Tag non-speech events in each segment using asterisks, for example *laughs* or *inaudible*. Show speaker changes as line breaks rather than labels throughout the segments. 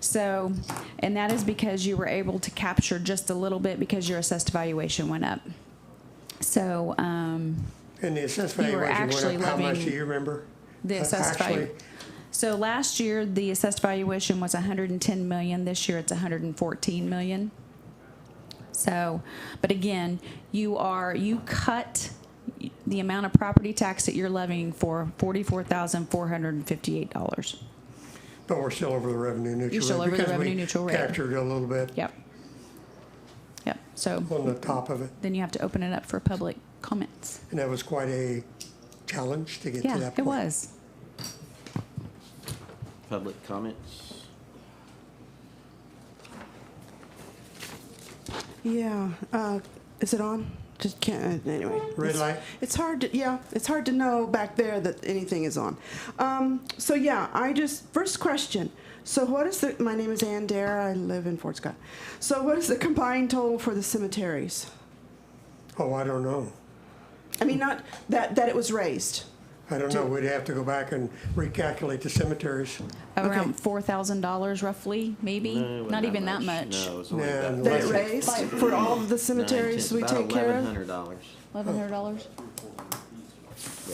So, and that is because you were able to capture just a little bit because your assessed valuation went up. So, um,
And the assessed
You were
valuation
actually
went up, how much
living-
do you remember?
the
Uh,
assessed value.
actually-
So last year, the assessed valuation was 110 million. This year, it's 114 million. So, but again, you are, you cut the amount of property tax that you're levying for $44,458.
But we're still over the revenue neutral rate.
still over the
because we
revenue neutral rate.
Captured a little bit
Yep. Yep. So
on the top of it,
then you have to open it up for public comments.
and that was quite a challenge to get to that
Yeah,
point.
it was.
Public comments?
Yeah. Uh, is it on? Just can't. uh, Anyway.
Red
It's-
light?
It's hard. To, yeah, it's hard to know back there that anything is on. Um, so yeah, I just first question. So what is the? My name is Ann Dare. I live in Fort Scott. So what is the combined total for the cemeteries?
Oh, I don't know.
I mean, not that that it was raised.
I don't know. We'd have to go back and recalculate the cemeteries.
Around $4,000 roughly, maybe?
No, it wasn't
Not even that much.
No, it was only
No,
about.
no.
That it
Listen.
raised for all of the cemeteries we take care
Eleven
of.
hundred dollars.
$1,100?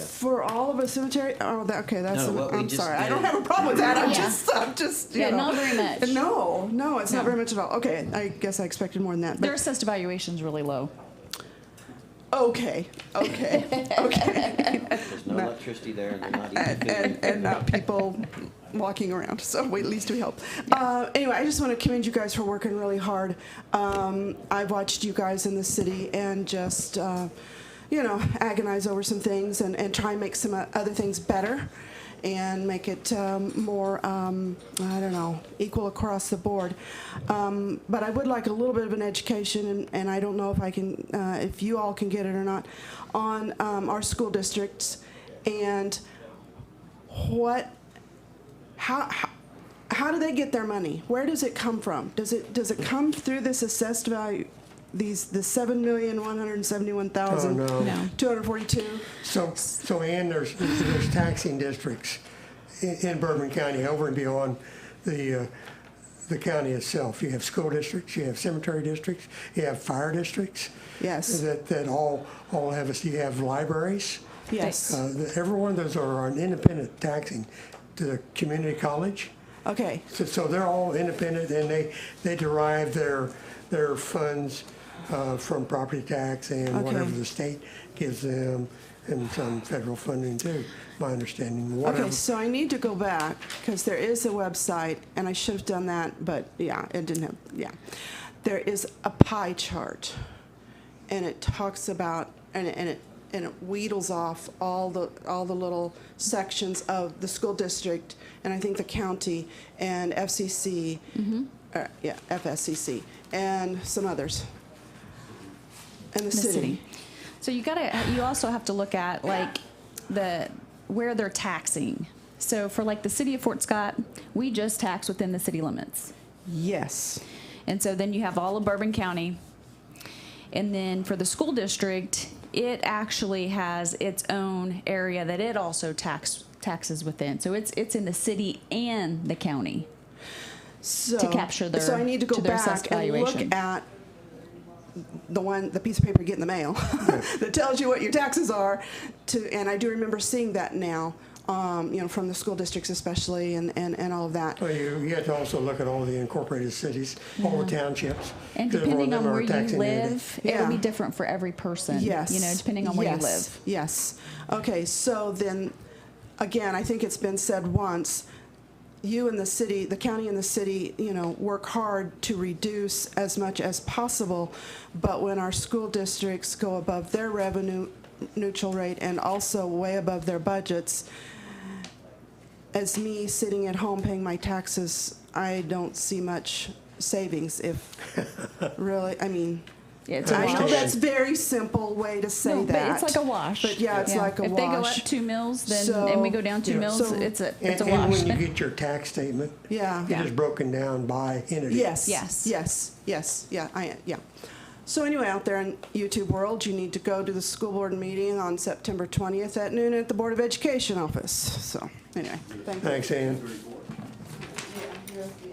For all of a cemetery? Oh, that, okay. That's.
No,
a-
what we
I'm
just
sorry. I don't
did.
have a problem with that. I'm
Yeah.
just. I'm just. You
Yeah,
know.
not very much.
No, no, it's
No.
not very much at all. Okay, I guess I expected more than that.
Their
But
assessed valuation's really low.
okay, okay, okay,
There's no electricity there and they're not eating
*laughs* and,
food.
and not people walking around. So we, at least we help. Uh, anyway, I just want to commend you guys for working really hard. Um, I've watched you guys in the city and just. Uh, you know, agonize over some things and, and try and make some uh, other things better and make it um, more, um, I don't know, equal across the board. Um, but I would like a little bit of an education, and, and I don't know if I can, uh, if you all can get it or not, on um, our school districts and what, how, how, how do they get their money? Where does it come from? Does it does it come through this assessed value, these the seven million one hundred seventy-one
Oh,
thousand?
no.
No.
242.
So, so Ann, there's, there's taxing districts in in Bourbon County over and beyond the, uh, the county itself. You have school districts, you have cemetery districts, you have fire districts.
Yes.
That, that all, all have, us- you have libraries.
Yes.
Uh, the- Every one of those are an independent taxing to the community college.
Okay.
So, so they're all independent and they, they derive their, their funds uh, from property tax and whatever
Okay.
the state gives them and some federal funding too, my understanding, whatever.
Okay, so I need to go back because there is a website, and I should have done that, but yeah, it didn't have, yeah. There is a pie chart, and it talks about, and it, and it, and it wheedles off all the, all the little sections of the school district, and I think the county, and FCC, uh, yeah, FSCC, and some others, and the
the
city.
city. So you gotta, uh, you also have to look at like the, where they're taxing. So for like the city of Fort Scott, we just tax within the city limits.
Yes.
And so then you have all of Bourbon County. And then for the school district, it actually has its own area that it also tax, taxes within. So it's, it's in the city and the county.
so,
capture their-
so I need to go
to their assessed
back and
valuation.
look at the one the piece of paper you get in the mail *laughs* that tells you what your taxes are to and I do remember seeing that now um, you know from the school districts especially and, and, and all of that
Well, you, you have to also look at all the incorporated cities, all the townships.
Mm-hmm. And
'cause more of
depending
them
on
are
where you
taxing unity.
live, it'll be
Yeah.
different for every person.
Yes.
You know, depending on where you
Yes.
live.
Yes. Okay, so then, again, I think it's been said once, you and the city, the county and the city, you know, work hard to reduce as much as possible, but when our school districts go above their revenue neutral rate and also way above their budgets, as me sitting at home paying my taxes, I don't see much savings if, really, I mean,
Yeah, it's a
I
wash.
know that's very simple way to say
No,
that.
But it's like a wash.
But yeah, it's like a
if
wash.
they go up two mills, then
So-
and we go down two
Yeah.
mills,
So-
it's a
And,
it's a
and
wash.
when you get your tax statement,
yeah.
it is broken down by entity.
Yes.
Yes.
Yes. Yes. Yeah. I yeah. So anyway, out there in YouTube world, you need to go to the school board meeting on September 20th at noon at the Board of Education office. So anyway, thank you.
Thanks, Ann.
Yeah, you're-